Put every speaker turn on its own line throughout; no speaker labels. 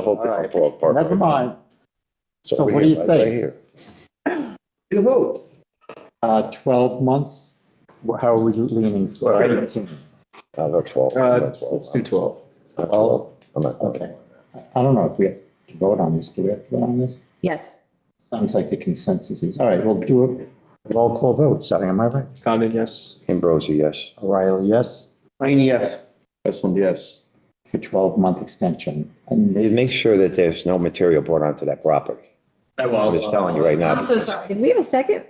whole different ballpark.
Never mind.
It's
So
over
what
here,
do you
right- right
say?
here.
You vote.
Uh, twelve months? Wh- How are we leaning? Eighteen.
Uh, no, twelve. no,
Uh,
twelve,
let's do twelve.
no, twelve. I'm not-
Okay. I don't know if we have to vote on this. Do we have to vote on this?
Yes.
Sounds like the consensus is, all right, we'll do a roll call vote, Sally, am I right?
Condon, yes.
Ambrosi, yes.
O'Reilly, yes,
Rainey, yes. Westland, yes.
for twelve-month extension. And
They Make sure that there's no material brought onto that property.
I
I'm just telling you right now.
I'm so sorry. Did we have a second?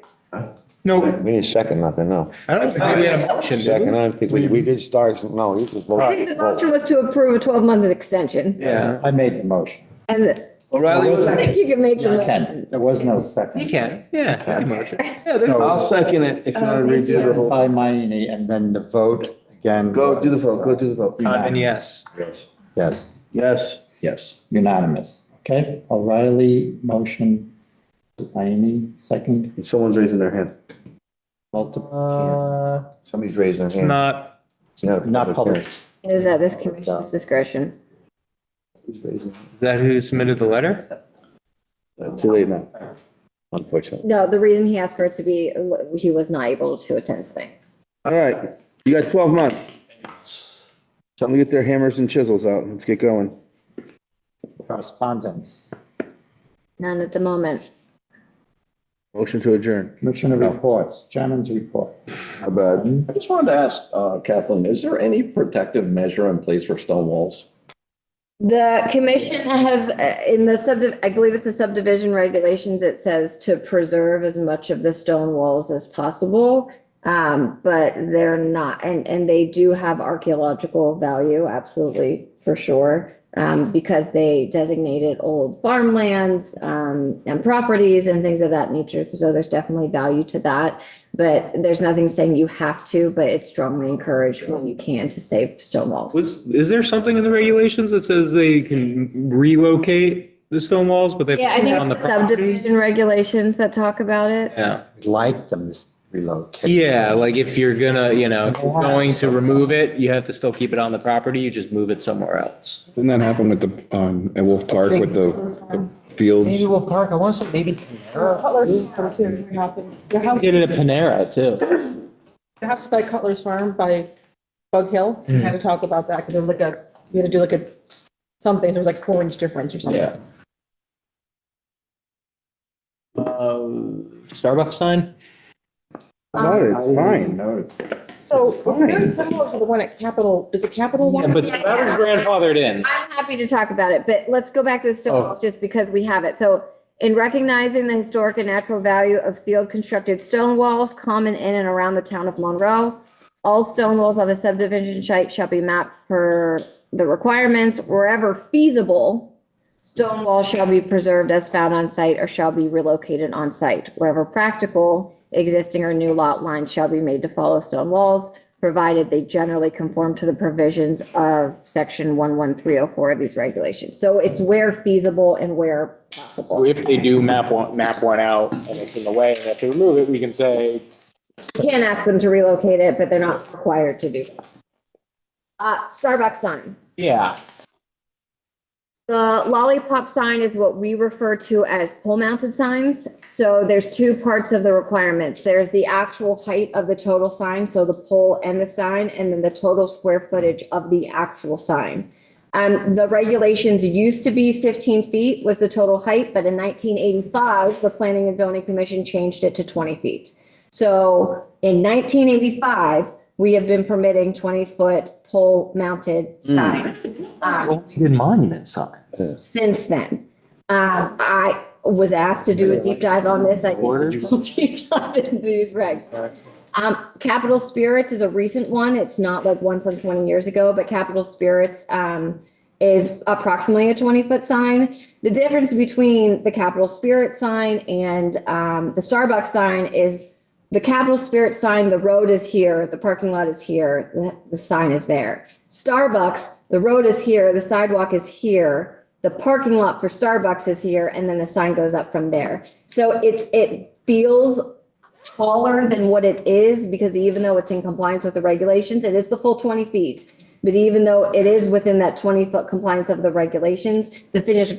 No. I
We need a second, nothing, no.
don't think we had a motion, did we?
Second, I think we, we did start, some- no, you just
I
voted.
think the motion was to approve a 12-month extension,
Yeah.
I made the motion.
and I
O'Reilly was.
think you can make the
Yeah, I
motion.
can. There was no second.
He can, yeah. he can motion. Yeah, there's-
So-
I'll second it if you want to
Oh, thank
redo the
you.
whole.
By Mayne, and then the vote again. uh,
Go, do the vote, go do the vote.
Condon,
Unanimous.
yes.
Yes,
Yes.
Yes.
unanimous. Okay, O'Reilly, motion, Mayne, second.
Someone's raising their hand.
Multiple,
Uh,
Somebody's raising
It's
their hand.
not,
It's not a
Uh, not public.
hearing.
Is that this commission's discretion?
Who's raising? their
is that who submitted the letter?
hand? Too late now.
Unfortunately.
No, the reason he asked for it to be, he was not able to attend today.
All right, you got twelve months. Time to get their hammers and chisels out. Let's get going.
correspondence.
None at the moment.
Motion to adjourn.
Commissioner reports, chairman's report.
I just wanted to ask uh, Kathleen, is there any protective measure in place for stone walls?
The commission has, uh, in the sub, I believe it's the subdivision regulations, it says to preserve as much of the stone walls as possible. Um, but they're not, and, and they do have archaeological value, absolutely, for sure. Um, because they designated old farmlands, um, and properties and things of that nature. So there's definitely value to that. But there's nothing saying you have to, but it's strongly encouraged when you can to save stone walls.
Was, is there something in the regulations that says they can relocate the stone walls, but they
Yeah, I
put
think
them on the
it's the
property?
subdivision regulations that talk about it.
Yeah,
Like them to relocate.
yeah, like if you're gonna, you know, if you're going to remove it, you have to still keep it on the property, you just move it somewhere else.
Didn't that happen with the, um, at Wolf Park with the, the fields?
Maybe Wolf Park, I want to say maybe Panera.
Cutler's Farm too, it happened. Their house,
Did it at Panera too.
their house is by Cutler's Farm by Bug Hill. We
Hmm.
had to talk about that because there was like a, we had to do like a, something, there was like four inch difference or something.
Yeah. Uh, Starbucks sign?
Um,
No, it's fine.
Noted.
So very similar to the one at Capitol, is it Capitol
Yeah,
One?
but that was grandfathered in.
I'm happy to talk about it, but let's go back to the
Oh.
stone walls just because we have it. So in recognizing the historic and natural value of field constructed stone walls common in and around the town of Monroe, all stone walls on a subdivision site shall be mapped per the requirements wherever feasible. Stone walls shall be preserved as found on site or shall be relocated on site wherever practical. Existing or new lot lines shall be made to follow stone walls, provided they generally conform to the provisions of section one one three oh four of these regulations. So it's where feasible and where possible.
If they do map one, map one out and it's in the way, and if they remove it, we can say,
You can't ask them to relocate it, but they're not required to do so. Uh, Starbucks sign.
yeah,
The lollipop sign is what we refer to as pole mounted signs. So there's two parts of the requirements. There's the actual height of the total sign, so the pole and the sign, and then the total square footage of the actual sign. Um, the regulations used to be 15 feet was the total height, but in 1985, the Planning and Zoning Commission changed it to 20 feet. So in 1985, we have been permitting 20 foot pole mounted signs. Um,
Good monument sign.
since then. Um, I was asked to do a deep dive on this. I did a full deep dive into these regs. Um, Capital Spirits is a recent one. It's not like one from twenty years ago, but Capital Spirits, um, is approximately a twenty-foot sign. The difference between the Capital Spirit sign and, um, the Starbucks sign is the Capital Spirit sign, the road is here, the parking lot is here, the, the sign is there. Starbucks, the road is here, the sidewalk is here, the parking lot for Starbucks is here, and then the sign goes up from there. So it's, it feels taller than what it is because even though it's in compliance with the regulations, it is the full twenty feet. But even though it is within that twenty foot compliance of the regulations, the finished